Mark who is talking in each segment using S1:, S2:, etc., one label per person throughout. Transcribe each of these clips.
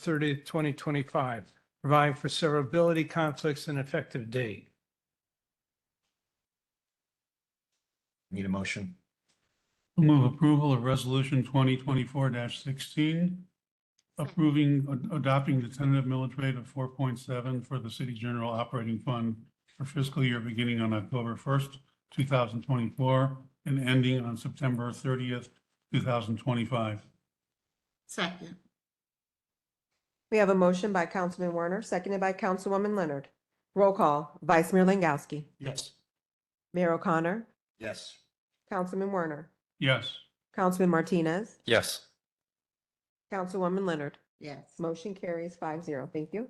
S1: 30th, 2025, providing for severability conflicts and effective date.
S2: Need a motion?
S3: Move approval of resolution twenty twenty-four sixteen, approving, ad- adopting the tentative millage rate of four point seven for the city general operating fund for fiscal year beginning on October first, two thousand twenty-four, and ending on September thirtieth, two thousand twenty-five.
S4: Second.
S5: We have a motion by Councilman Werner, seconded by Councilwoman Leonard. Roll call, Vice Mayor Langowski,
S3: Yes.
S5: Mayor O'Connor,
S2: Yes.
S5: Councilman Werner,
S3: Yes.
S5: Councilman Martinez,
S6: Yes.
S5: Councilwoman Leonard.
S4: Yes.
S5: Motion carries five zero. Thank you.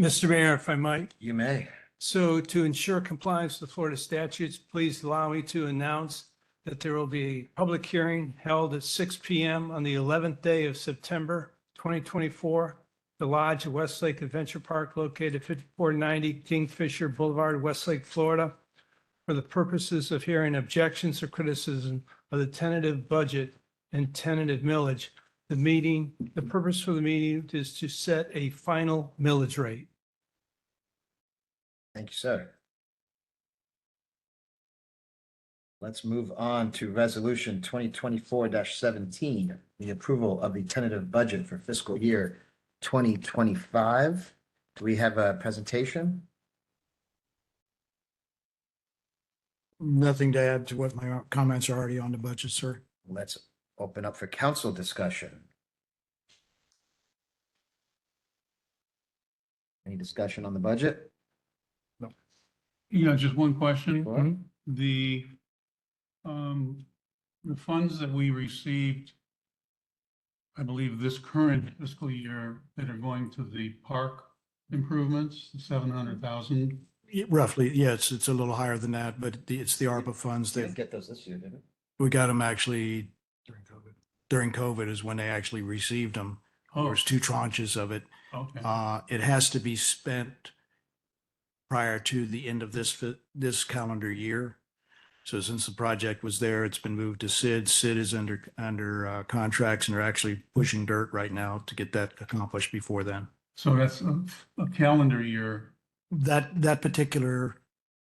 S1: Mr. Mayor, if I might,
S2: You may.
S1: So to ensure compliance with Florida statutes, please allow me to announce that there will be a public hearing held at six P M on the eleventh day of September twenty twenty-four. The Lodge at Westlake Adventure Park located fifty-four ninety Kingfisher Boulevard, Westlake, Florida, for the purposes of hearing objections or criticism of the tentative budget and tentative millage. The meeting, the purpose for the meeting is to set a final millage rate.
S2: Thank you, sir. Let's move on to resolution twenty twenty-four seventeen, the approval of the tentative budget for fiscal year twenty twenty-five. Do we have a presentation?
S7: Nothing to add to what my comments are already on the budget, sir.
S2: Let's open up for council discussion. Any discussion on the budget?
S3: Yeah, just one question.
S2: Laura?
S3: the, um, the funds that we received, I believe this current fiscal year that are going to the park improvements, seven hundred thousand.
S7: Yeah, Roughly, yes, it's a little higher than that, but the- it's the ARPA funds
S2: Didn't
S7: that
S2: get those this year, did it?
S7: we got them actually during COVID is when they actually received them. There
S3: Oh,
S7: was two tranches of it.
S3: okay.
S7: Uh, it has to be spent prior to the end of this, fi- this calendar year. So since the project was there, it's been moved to Sid. Sid is under, under uh, contracts and they're actually pushing dirt right now to get that accomplished before then.
S3: So that's a, a calendar year.
S7: That, that particular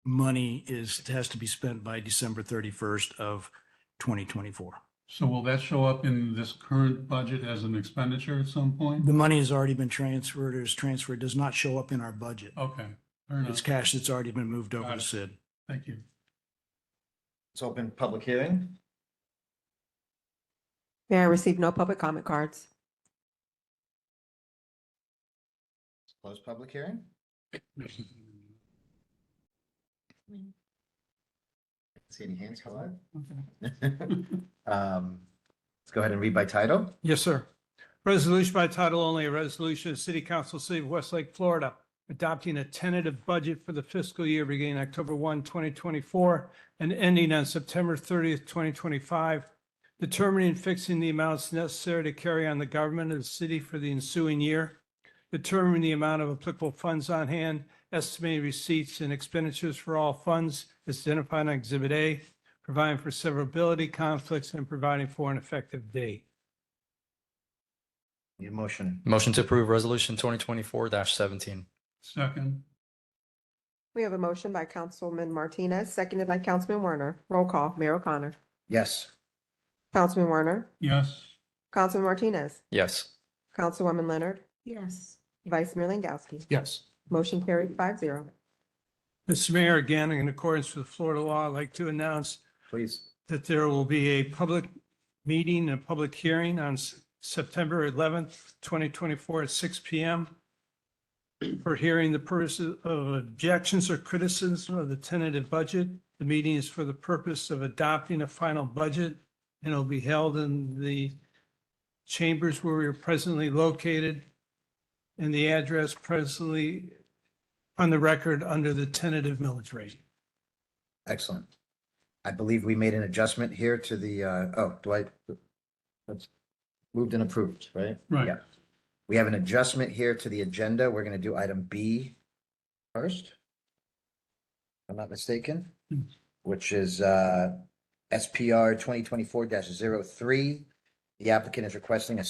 S7: money is, has to be spent by December thirty-first of twenty twenty-four.
S3: So will that show up in this current budget as an expenditure at some point?
S7: The money has already been transferred, or is transferred, does not show up in our budget.
S3: Okay, Oh, fair enough.
S7: It's cash that's already been moved over
S3: Got
S7: to
S3: it.
S7: Sid.
S3: Thank you.
S2: Let's open public hearing.
S5: Mayor, I received no public comment cards.
S2: Close public hearing. See any hands go up? Um, Let's go ahead and read by title.
S1: Yes, sir. Resolution by title only, a resolution of City Council, City of Westlake, Florida, adopting a tentative budget for the fiscal year beginning October 1, 2024, and ending on September 30th, 2025, determining and fixing the amounts necessary to carry on the government of the city for the ensuing year, determining the amount of applicable funds on hand, estimated receipts and expenditures for all funds as identified on Exhibit A, providing for severability conflicts, and providing for an effective date.
S2: Need a motion.
S6: Motion to approve resolution twenty twenty-four seventeen.
S3: Second,
S5: We have a motion by Councilman Martinez, seconded by Councilman Werner. Roll call, Mayor O'Connor,
S2: Yes.
S5: Councilman Werner,
S3: yes,
S5: Councilman Martinez,
S6: Yes.
S5: Councilwoman Leonard,
S4: Yes.
S5: Vice Mayor Langowski.
S1: Yes.
S5: Motion carried five zero.
S1: Mr. Mayor, again, in accordance with Florida law, I'd like to announce
S2: Please.
S1: that there will be a public meeting, a public hearing on S- September 11th, 2024 at 6 PM for hearing the purpose of objections or criticism of the tentative budget. The meeting is for the purpose of adopting a final budget and it'll be held in the chambers where we are presently located and the address presently on the record under the tentative millage rate.
S2: Excellent. I believe we made an adjustment here to the, uh, oh, do I? That's moved and approved, right?
S3: right.
S2: Yeah. We have an adjustment here to the agenda. We're going to do item B first. If I'm not mistaken, which is uh, SPR 2024-03. The applicant is requesting a